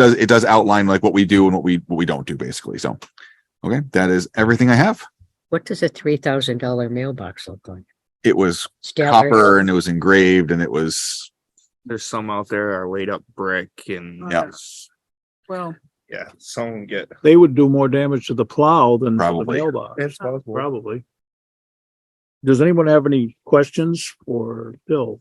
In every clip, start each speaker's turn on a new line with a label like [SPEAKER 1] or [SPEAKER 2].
[SPEAKER 1] does it does outline like what we do and what we what we don't do basically. So okay, that is everything I have.
[SPEAKER 2] What does a three thousand dollar mailbox look like?
[SPEAKER 1] It was
[SPEAKER 2] Stale or-
[SPEAKER 1] copper and it was engraved and it was
[SPEAKER 3] There's some out there are laid up brick and
[SPEAKER 1] Yeah.
[SPEAKER 3] there's-
[SPEAKER 4] Well,
[SPEAKER 3] yeah, some get.
[SPEAKER 5] They would do more damage to the plow than to the
[SPEAKER 1] Probably.
[SPEAKER 5] mailbox,
[SPEAKER 3] It's possible.
[SPEAKER 5] probably. Does anyone have any questions for Bill?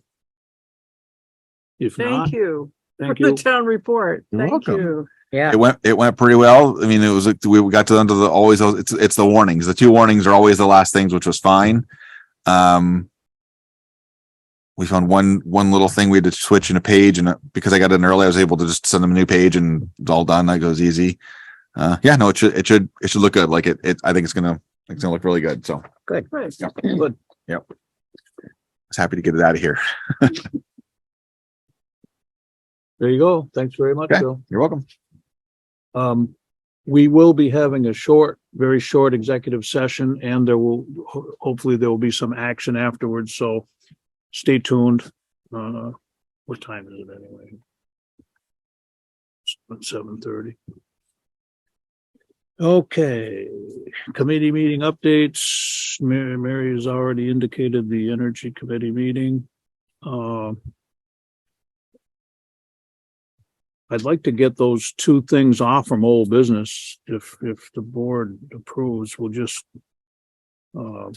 [SPEAKER 5] If not,
[SPEAKER 4] thank you for
[SPEAKER 5] thank
[SPEAKER 4] the
[SPEAKER 5] you.
[SPEAKER 4] town report.
[SPEAKER 1] You're
[SPEAKER 4] Thank
[SPEAKER 1] welcome.
[SPEAKER 4] you.
[SPEAKER 2] Yeah,
[SPEAKER 1] it went it went pretty well. I mean, it was like we got to the end of the always it's it's the warnings. The two warnings are always the last things, which was fine. Um we found one one little thing we had to switch in a page, and uh, because I got in early, I was able to just send them a new page, and it's all done. That goes easy. Uh, yeah, no, it should it should it should look good. Like it, it I think it's gonna it's gonna look really good. So I
[SPEAKER 4] Right.
[SPEAKER 1] Yeah.
[SPEAKER 5] Good.
[SPEAKER 1] was happy to get it out of here.
[SPEAKER 5] There you go. Thanks very much,
[SPEAKER 1] Okay.
[SPEAKER 5] Bill.
[SPEAKER 1] You're welcome.
[SPEAKER 5] Um, we will be having a short, very short executive session and there will, ho- hopefully there will be some action afterwards, so stay tuned. Uh, what time is it anyway? Seven thirty. Okay, committee meeting updates. Mary, Mary has already indicated the energy committee meeting. Um, I'd like to get those two things off from old business if, if the board approves, we'll just. uh,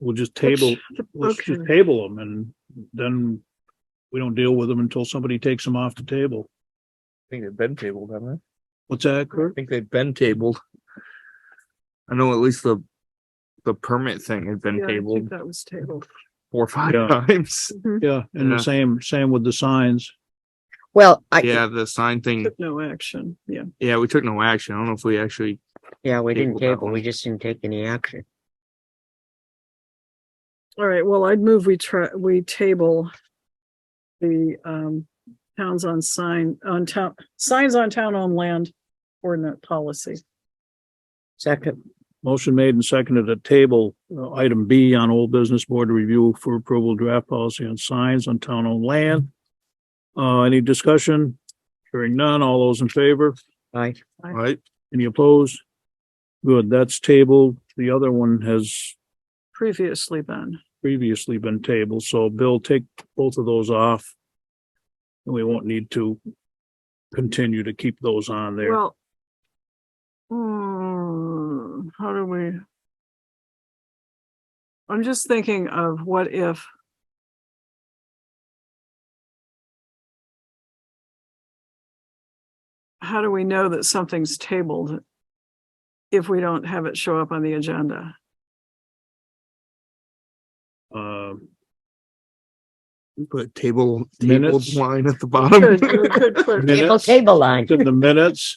[SPEAKER 5] We'll just table, let's just
[SPEAKER 4] Okay.
[SPEAKER 5] table them and then we don't deal with them until somebody takes them off the table.
[SPEAKER 3] I think they've been tabled, haven't
[SPEAKER 5] What's that,
[SPEAKER 3] they? I
[SPEAKER 5] Kurt?
[SPEAKER 3] think they've been tabled. I know at least the, the permit thing had
[SPEAKER 4] Yeah,
[SPEAKER 3] been
[SPEAKER 4] I think
[SPEAKER 3] tabled
[SPEAKER 4] That was tabled.
[SPEAKER 3] four or five
[SPEAKER 5] Yeah.
[SPEAKER 3] times.
[SPEAKER 4] Mhm.
[SPEAKER 5] Yeah, and
[SPEAKER 3] Yeah.
[SPEAKER 5] the same, same with the signs.
[SPEAKER 2] well, I,
[SPEAKER 3] Yeah, the sign thing,
[SPEAKER 4] Took no action. Yeah.
[SPEAKER 3] yeah, we took no action. I don't know if we actually,
[SPEAKER 2] yeah, we didn't
[SPEAKER 3] Table that
[SPEAKER 2] table, we just didn't take any action.
[SPEAKER 4] All right. Well, I'd move we try, we table the um towns on sign, on town, signs on town on land ordinance policy.
[SPEAKER 2] Second,
[SPEAKER 5] Motion made and seconded at table, uh, item B on old business board review for approval draft policy on signs on town owned land. Uh, any discussion? Hearing none, all those in favor,
[SPEAKER 2] I,
[SPEAKER 3] right?
[SPEAKER 5] any opposed? Good, that's tabled. The other one has
[SPEAKER 4] Previously been.
[SPEAKER 5] previously been tabled, so Bill, take both of those off. And we won't need to continue to keep those on there.
[SPEAKER 4] Well. hmm, how do we? I'm just thinking of what if how do we know that something's tabled if we don't have it show up on the agenda?
[SPEAKER 5] Um,
[SPEAKER 3] Put table, table
[SPEAKER 5] Minutes.
[SPEAKER 3] line at the
[SPEAKER 4] Good,
[SPEAKER 3] bottom.
[SPEAKER 4] good, good
[SPEAKER 2] table,
[SPEAKER 4] question.
[SPEAKER 5] Minutes.
[SPEAKER 2] table line.
[SPEAKER 5] it's in the minutes,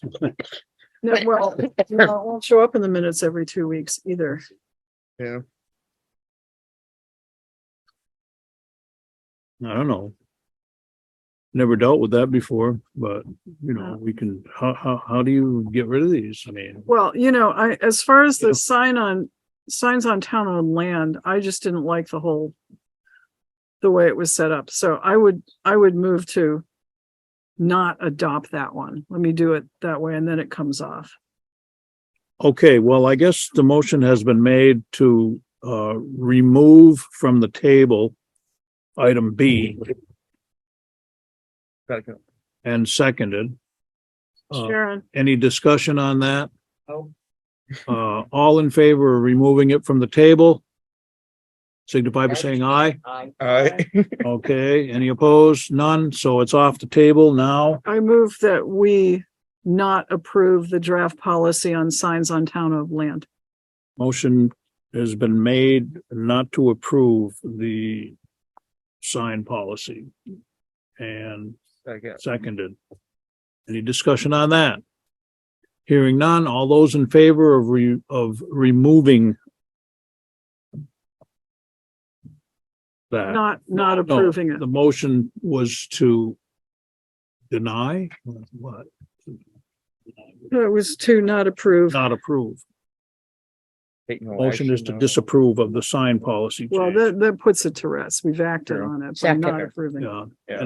[SPEAKER 4] No, well, no, it won't show up in the minutes every two weeks either.
[SPEAKER 5] I don't know. Never dealt with that before, but you know, we can, how, how, how do you get rid of these? I mean,
[SPEAKER 4] Well, you know, I, as far as
[SPEAKER 5] Yeah.
[SPEAKER 4] the sign on, signs on town owned land, I just didn't like the whole. The way it was set up, so I would, I would move to. Not adopt that one. Let me do it that way and then it comes off.
[SPEAKER 5] okay, well, I guess the motion has been made to, uh, remove from the table item B
[SPEAKER 3] Second.
[SPEAKER 5] and seconded. Uh,
[SPEAKER 4] Sharon,
[SPEAKER 5] Any discussion on that?
[SPEAKER 3] No.
[SPEAKER 5] Uh, all in favor of removing it from the table? Signify by saying aye.
[SPEAKER 2] I,
[SPEAKER 3] All right.
[SPEAKER 5] Okay, any opposed? None, so it's off the table now.
[SPEAKER 4] I move that we not approve the draft policy on signs on town owned land.
[SPEAKER 5] Motion has been made not to approve the sign policy. And seconded. Any discussion on that? Hearing none, all those in favor of re, of removing that?
[SPEAKER 4] Not, not
[SPEAKER 5] Uh, No,
[SPEAKER 4] approving it.
[SPEAKER 5] The motion was to deny, what,
[SPEAKER 4] It was to not approve.
[SPEAKER 5] not approve. Motion is to disapprove of the sign policy
[SPEAKER 4] Well,
[SPEAKER 5] change.
[SPEAKER 4] that, that puts it to rest. We've acted
[SPEAKER 3] True.
[SPEAKER 4] on it by
[SPEAKER 2] Second.
[SPEAKER 4] not approving. it.
[SPEAKER 5] Yeah.